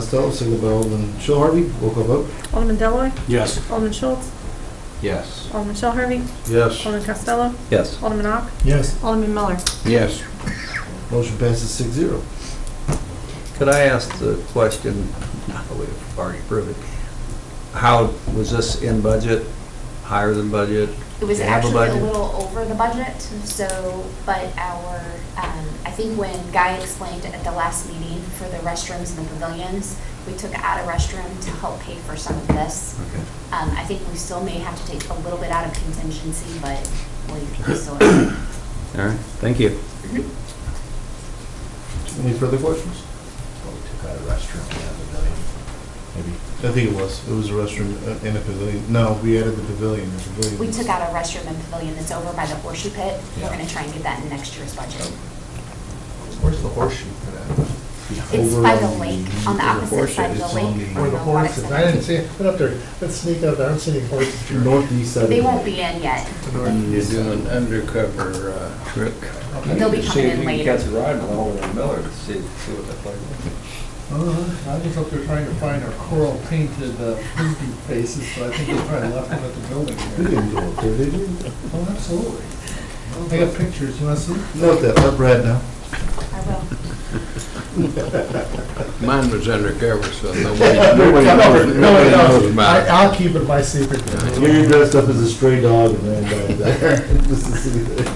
Costello, seconded by Alderman Shell Harvey. Roll call vote. Alderman Delloy, Yes. Alderman Schultz, Yes. Alderman Shell Harvey, Yes. Alderman Costello, Yes. Alderman Ock, Yes. Alderman Miller. Yes. Motion passes six zero. Could I ask the question, not that we've already proved it, how, was this in budget, higher than budget? It was They have a actually a budget. little over the budget, so, but our, um, I think when Guy explained at the last meeting for the restrooms and the pavilions, we took out a restroom to help pay for some of this. Okay. Um, I think we still may have to take a little bit out of contingency, but we still. All right, thank you. Any further questions? I think it was. It was a restroom uh, and a pavilion. No, we added the pavilion, the pavilion. We took out a restroom and pavilion that's over by the horseshoe pit. We're Yeah. gonna try and get that in next year's budget. Where's the horseshoe for that? It's Over by the on lake, the- on the where the opposite horse side of is, the it's lake. on the- from the Where the water horses, center. I didn't see, it. get up there, let's sneak up there, I don't see any horses here. Northeast side. of They the- won't be in yet. You're doing an undercover uh, trick. They'll be coming in See if you can later. catch a ride along with Miller to see, see what that's like. Uh, I was up there trying to find our coral painted uh, frisbee faces, but I think they probably left them at the building We here. didn't go up there, did we? Oh, absolutely. I got pictures, you wanna see? Note that, let Brad know. I will. Mine was undercover, so Nobody knows. Nobody knows I- I'll keep it my secret. You're dressed up as a stray dog and ran down there. Just to see that.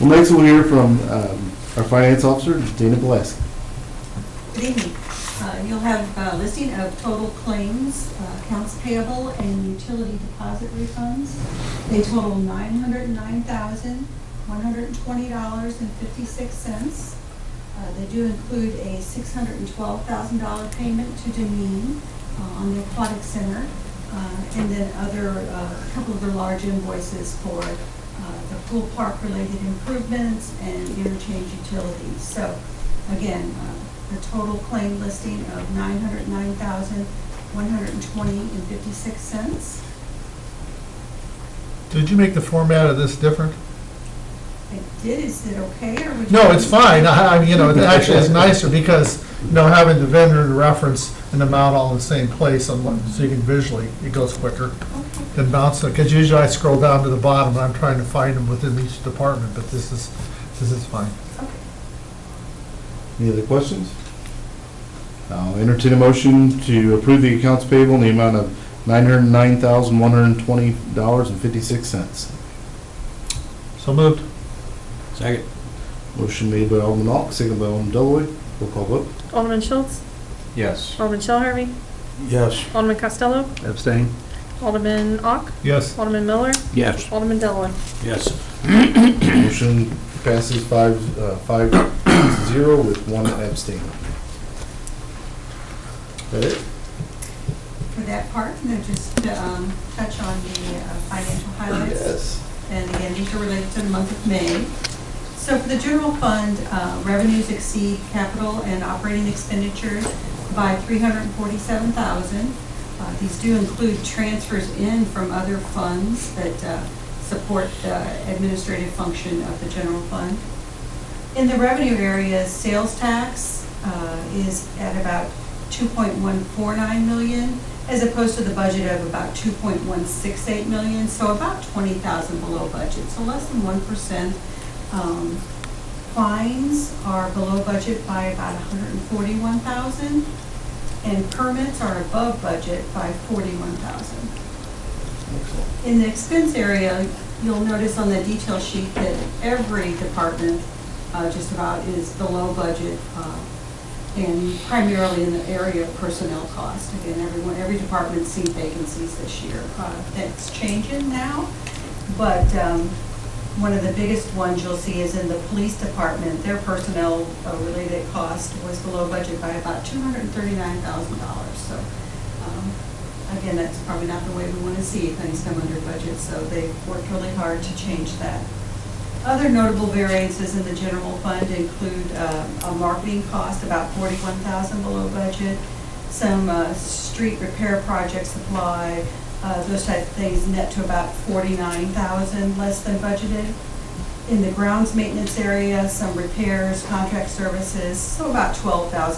Well, next we'll hear from um, our finance officer, Dana Blask. Good evening. Uh, You'll have a listing of total claims, uh, accounts payable, and utility deposit refunds. They total $909,120.56. Uh, They do include a $612,000 payment to Demeen uh, on the Aquatic Center, uh, and then other, uh, a couple of the large invoices for uh, the pool park-related improvements and interchange utilities. So again, uh, the total claim listing of $909,120.56. Did you make the format of this different? I did, is it okay, or would you? No, it's fine, I, I- you know, it actually is nicer, because, you know, having the vendor to reference and amount all in the same place, on one- so you can visually, it goes quicker. Okay. than bouncing, because usually I scroll down to the bottom, and I'm trying to find them within each department, but this is, this is fine. Any other questions? I'll entertain a motion to approve the accounts payable in the amount of $909,120.56. So moved. Second. Motion made by Alderman Ock, seconded by Alderman Delloy. Roll call vote. Alderman Schultz, Yes. Alderman Shell Harvey, Yes. Alderman Costello, Abstain? Alderman Ock, Yes. Alderman Miller, Yes. Alderman Delloy. Yes. Motion passes five, uh, five to zero with one abstain. That it? For that part, and then just to um, touch on the uh, financial highlights. And again, these are related to the month of May. So for the general fund, uh, revenues exceed capital and operating expenditures by $347,000. Uh, These do include transfers in from other funds that uh, support the administrative function of the general fund. In the revenue area, sales tax uh, is at about 2.149 million, as opposed to the budget of about 2.168 million, so about 20,000 below budget, so less than 1%. Um, Fines are below budget by about 141,000, and permits are above budget by 41,000. In the expense area, you'll notice on the detail sheet that every department uh, just about is below budget, uh, and primarily in the area of personnel cost. Again, everyone, every department's seen vacancies this year. Uh, That's changing now, but um, one of the biggest ones you'll see is in the police department. Their personnel-related cost was below budget by about $239,000. So um, Again, that's probably not the way we want to see things come under budget, so they've worked really hard to change that. Other notable variances in the general fund include uh, a marketing cost about forty-one thousand below budget, some uh, street repair project supply, uh, those type of things net to about forty-nine thousand, less than budgeted. In the grounds maintenance area, some repairs, contract services, so about twelve thousand